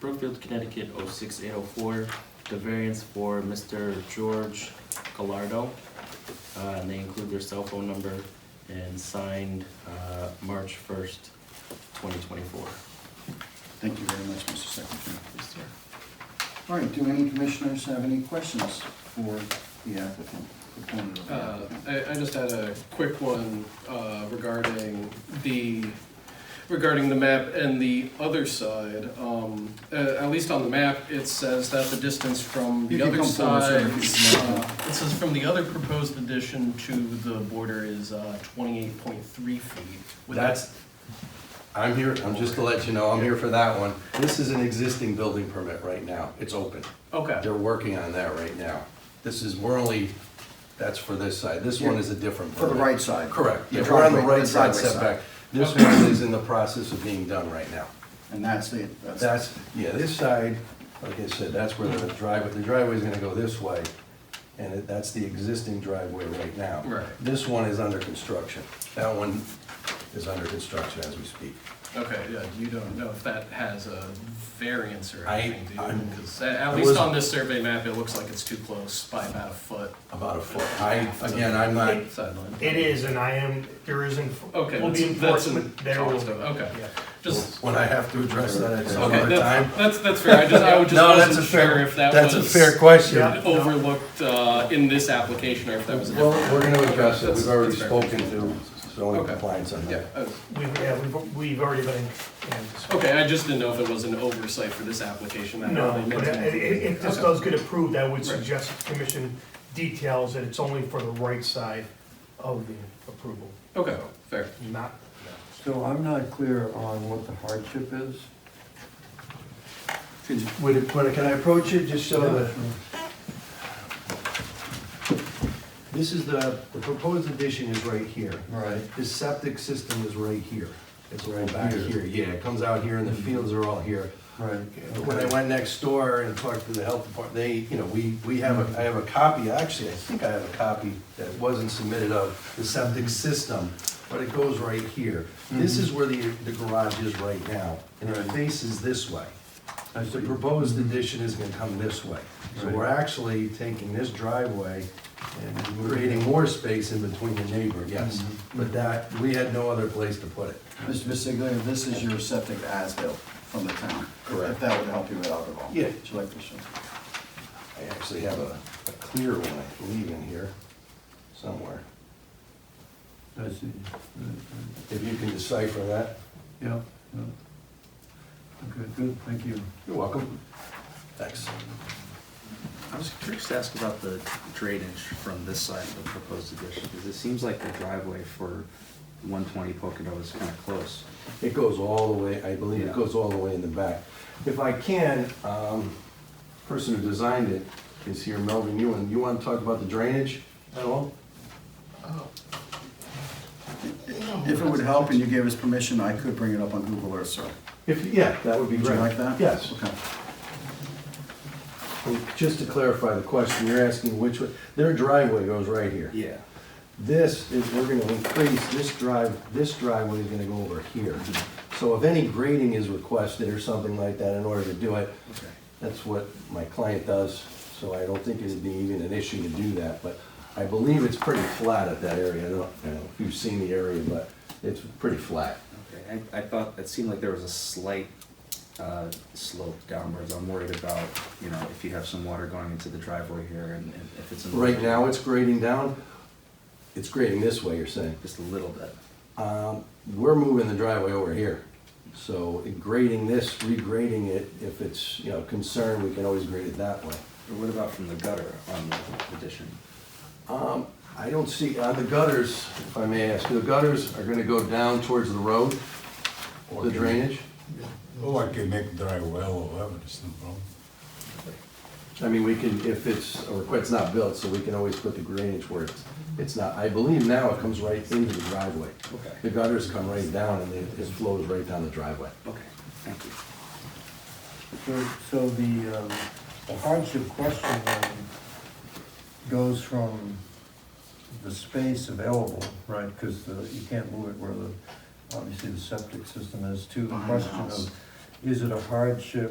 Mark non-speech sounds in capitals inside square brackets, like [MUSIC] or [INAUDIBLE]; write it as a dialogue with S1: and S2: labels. S1: Brookfield, Connecticut, 06804, the variance for Mr. George Gallardo. Uh, and they include their cell phone number and signed, uh, March first, twenty twenty-four.
S2: Thank you very much, Mr. Secretary. All right, do any commissioners have any questions for the applicant? proponent of the
S3: Uh,
S2: applicant?
S3: I, I just had a quick one uh, regarding the, regarding the map and the other side. Um, uh, At least on the map, it says that the distance from
S2: You
S3: the
S2: can
S3: other
S2: come forward, sir,
S3: side.
S2: if you'd like.
S3: uh, It says from the other proposed addition to the border is uh, twenty-eight point three feet. Would that-
S4: That's, I'm here, I'm just to let you know, I'm here for that one. This is an existing building permit right now, it's open.
S3: Okay,
S4: They're working on that right now. This is, we're only, that's for this side, this one is a different
S2: For
S4: permit.
S2: the right side.
S4: Correct,
S2: The
S4: yeah, we're on the
S2: driveway-
S4: right side
S2: driveway
S4: setback. This one is in the process of being done right now.
S2: And that's it, that's.
S4: That's, yeah, this side, like I said, that's where the driveway, the driveway's gonna go this way, and it- that's the existing driveway right now.
S3: Right.
S4: This one is under construction. That one is under construction as we speak.
S3: okay, yeah, you don't know if that has a variance or
S4: I-
S3: anything, do you?
S4: I'm-
S3: Because uh, at
S4: I
S3: at least
S4: wasn't-
S3: on this survey map, it looks like it's too close by about a foot
S4: About a foot. I, again, I'm not,
S3: sideline.
S5: It is, and I am, there is, enf-
S3: Okay,
S5: will be
S3: that's- that's in
S5: enforcement, there will be.
S3: Charleston, okay.
S5: Yeah.
S3: Just,
S4: when I have to address that at some
S3: okay,
S4: other time.
S3: that's, that's, that's fair, I just, I would
S4: [LAUGHS]
S3: just
S4: No, that's a
S3: wasn't
S4: fair,
S3: sure if that
S4: that's a
S3: was
S4: fair question.
S5: Yeah.
S3: [LAUGHS] overlooked, uh, in this application, or if that was a
S4: Well,
S3: different.
S4: we're gonna address it. We've already
S3: That's- that's
S4: spoken to zoning
S3: Okay.
S4: compliance on
S3: Yeah,
S4: that.
S3: uh,
S5: We've, yeah, we've, we've already been in, in-
S3: okay, I just didn't know if it was an oversight for this application, that
S5: no,
S3: probably meant
S5: but i- i-
S3: to.
S5: if this
S3: Okay.
S5: does get approved, I would
S3: Right.
S5: suggest the commission details that it's only for the right side of the approval,
S3: Okay, fair,
S5: not.
S6: So I'm not clear on what the hardship is.
S2: Could you-
S6: Would it, when- can I approach it just so that?
S7: This is the, the proposed addition is right here.
S6: Right.
S7: The septic system is right here. It's right back
S6: here.
S7: here, yeah, it comes out here and the fields are all here.
S6: Right.
S7: When I went next door and talked to the health department, they, you know, we, we have a, I have a copy, actually, I think I have a copy that wasn't submitted of the septic system, but it goes right here. This is where the, the garage is right now, and it
S6: Mm-hmm. Right.
S7: faces this way.
S6: I
S7: The
S6: see.
S7: proposed addition is gonna come this way. So
S6: Right.
S7: we're actually taking this driveway and creating more space in between the neighbor, yes.
S6: Mm-hmm.
S7: But that, we had no other place to put it.
S2: Mr. Bissiglia, this is your septic as-built from the town.
S7: Correct.
S2: If that would help you with alcohol.
S7: Yeah.
S2: Would you like to show?
S7: I actually have a, a clear one, I believe, in here somewhere.
S6: I see. Right, right.
S7: If you can decipher that.
S6: Yeah, yeah. Okay, good, thank you.
S7: You're welcome. Thanks.
S8: I was curious to ask about the drainage from this side of the proposed addition, because it seems like the driveway for one twenty Pocono is kind of close.
S7: It goes all the way, I believe
S8: Yeah.
S7: it goes all the way in the back. If I can, um, person who designed it is here, Melvin Ewan. You want to talk about the drainage at all?
S2: If it would help and you gave us permission, I could bring it up on Google Earth, sir.
S7: If, yeah, that would be
S2: Would you
S7: great.
S2: like that?
S7: Yes.
S2: Okay.
S7: And Just to clarify the question, you're asking which, way their driveway goes right here.
S8: Yeah.
S7: This is, we're gonna increase, this drive, this driveway is gonna go over here. So if any grading is requested or something like that in order to do it, that's what my client does, so I don't think it'd be even an issue to do that, but I believe it's pretty flat at that area, I don't, I don't know if you've seen the area, but it's pretty flat.
S8: Okay, I, I thought, it seemed like there was a slight, uh, slope downwards, I'm worried about, you know, if you have some water going into the driveway here and and if it's. in the-
S7: Right now, it's grading down, it's grading this way, you're saying?
S8: Just a little bit,
S7: Um, we're moving the driveway over here, so grading this, regrading it, if it's, you know, concerned, we can always grade it that way.
S8: or what about from the gutter on the addition?
S7: Um, I don't see, uh, the gutters, if I may ask, the gutters are gonna go down towards the road, the drainage?
S9: Oh, I can make dry well or whatever, it's no problem.
S7: I mean, we can, if it's, or if it's not built, so we can always put the drainage where it's, it's not, I believe now it comes right into the driveway.
S8: Okay.
S7: The gutters come right down and it, it flows right down the driveway.
S8: Okay, thank you.
S6: So, so the um, the hardship question then goes from the space available, right? Because you can't move it where the, obviously the septic system is, to the
S2: Behind the
S6: question
S2: house.
S6: of, is it a hardship